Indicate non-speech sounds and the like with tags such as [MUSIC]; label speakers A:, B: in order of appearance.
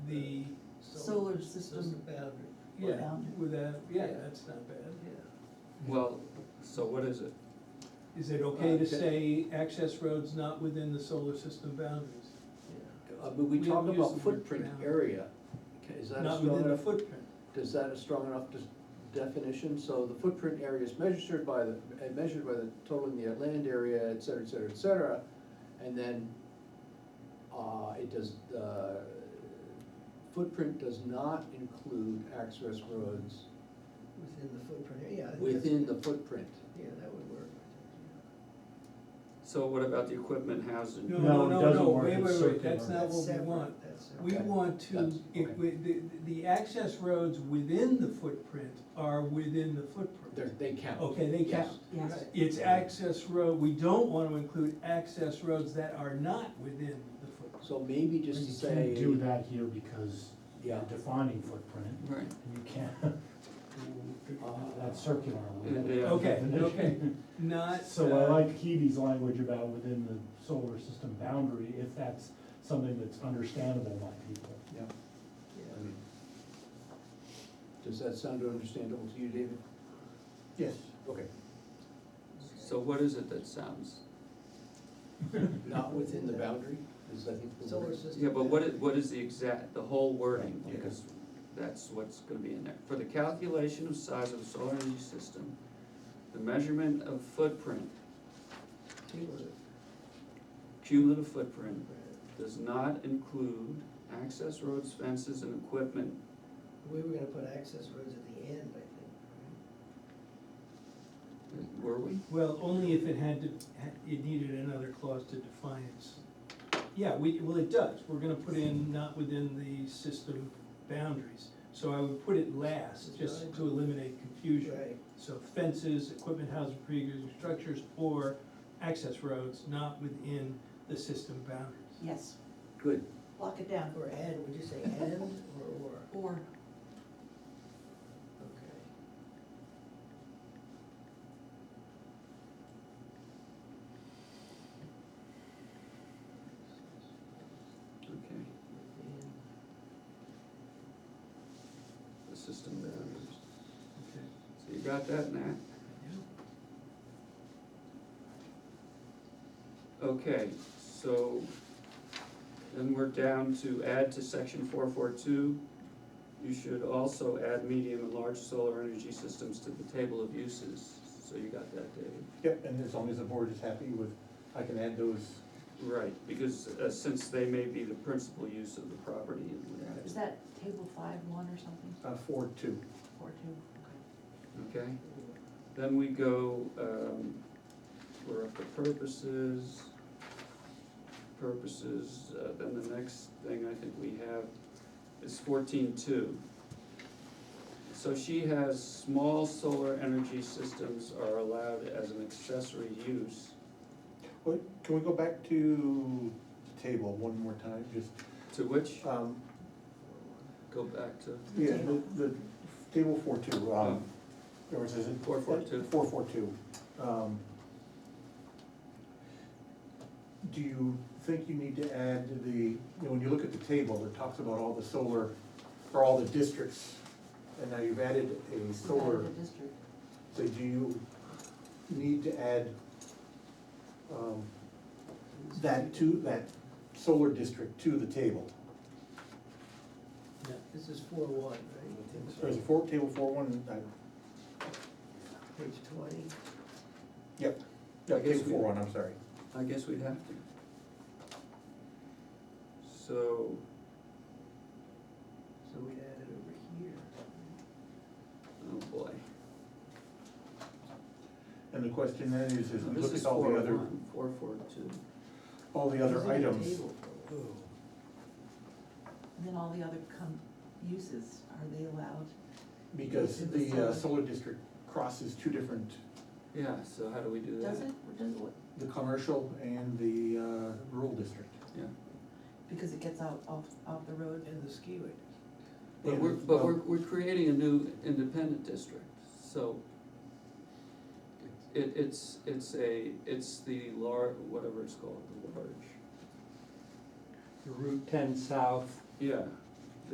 A: solar
B: This is the
A: system,
B: boundary,
A: Or
B: yeah,
A: boundary.
B: without, yeah,
C: Yeah.
B: that's not bad.
A: yeah,
C: Well, so what is it?
B: Is it okay to
C: Uh,
B: say access roads not within the solar system boundaries?
A: yeah.
D: Uh, But we
B: We
D: talk
B: don't use the
D: about
B: word
D: footprint
B: boundary.
D: area, Ca- is that a
B: Not
D: strong
B: within the
D: enough,
B: footprint.
D: does that a strong enough des- definition? So the footprint area is measured by the, uh, measured by the total in the land area, et cetera, et cetera, et cetera. And then, uh, it does, uh, footprint does not include access roads
A: Within the footprint, yeah. I think that's-
D: within the footprint.
A: Yeah, that would work.
C: So what about the equipment housing?
B: No,
E: No,
B: no,
E: it
B: no,
E: doesn't
B: no,
E: work,
B: wait,
E: it's
B: wait, wait,
E: circular.
B: that's not
A: That's
B: what we
A: separate,
B: want.
A: that's separate.
B: We
D: Okay,
B: want to,
D: that's-
B: it,
D: okay.
B: we- the, the access roads within the footprint are within the footprint.
D: They're, they count.
B: Okay, they
D: Yes.
B: count.
A: Yes.
B: It's access road, we don't wanna include access roads that are not within the footprint.
D: So maybe just to
E: You
D: say.
E: can't do that here because you're
D: Yeah.
E: defining footprint,
C: Right,
E: and you can't, [LAUGHS]
D: Uh,
E: that's circular. we don't have
C: Yeah.
E: a
B: Okay,
E: definition. [LAUGHS]
B: okay. Not.
E: So I
B: uh,
E: like Kiwi's language about within the solar system boundary, if that's something that's understandable by people.
D: Yeah. I
A: Yeah.
D: mean, Um, Does that sound understandable to you, David?
B: Yes.
D: Okay.
C: so what is it that sounds,
D: Not within the boundary, is I think the
A: Solar
D: word.
A: system.
C: yeah, but what is, what is the exact, the whole wording? Because that's what's gonna be in there. For the calculation of size of the solar energy system, the measurement of footprint,
A: Cumulative.
C: cumulative footprint, does not include access roads, fences, and equipment.
A: We were gonna put access roads at the end, I think.
C: Were we?
B: Well, only if it had to, ha- it needed another clause to define it. Yeah, we, well, it does, we're gonna put in not within the system boundaries. So I would put it last, just to eliminate confusion.
A: Right,
B: So fences, equipment, housing, pre-existing structures, or access roads not within the system boundaries.
F: Yes,
D: Good,
F: lock it down,
A: or and, would you say and or or?
F: or,
A: Okay.
C: Okay,
A: Within
C: the system boundaries.
B: Okay.
C: So you got that, Nat? Okay, so then we're down to add to section four four two. You should also add medium and large solar energy systems to the table of uses. So you got that, David?
G: Yep, and as long as the board is happy with, I can add those,
C: Right, because uh, since they may be the principal use of the property and we
F: is that table five one or something,
G: uh, four, two.
F: or two? Okay.
C: okay? Then we go, um, we're up to purposes. Purposes, uh, then the next thing I think we have is fourteen two. So she has small solar energy systems are allowed as an accessory use.
G: What, can we go back to the table one more time, just,
C: To which,
G: um,
C: go back to,
G: yeah, the, the table four, two, um, or is it?
C: Four, four, two.
G: Four, four, two, um. Do you think you need to add the, you know, when you look at the table, it talks about all the solar, or all the districts, and now you've added a solar.
F: Out of the district.
G: So do you need to add um, that to, that solar district to the table?
B: Yeah.
A: This is four one, right?
G: Or is it four, table four one, uh, I-
A: Page twenty.
G: yep,
C: I
G: yeah,
C: guess
G: table
C: we-
G: four one, I'm sorry.
C: I guess we'd have to. So,
A: So we'd add it over here.
C: oh boy,
G: And the question then is, is we
C: this
G: look
C: is
G: at all
C: four oh
G: the other,
C: one, four four two.
G: all the other
A: Who's in the
G: items.
A: table for?
F: And then all the other com, uses, are they allowed?
G: Because the uh, solar district crosses two different,
C: Yeah, so how do we do that?
F: Does it, or does it, what-
G: the commercial and the uh, rural district.
C: Yeah.
F: because it gets out, off, off the road?
A: And the skiway.
C: But
G: And,
C: we're, but
G: well,
C: we're, we're creating a new independent district, so it, it's, it's a, it's the lar, whatever it's called, the large,
H: Route ten south,
C: yeah,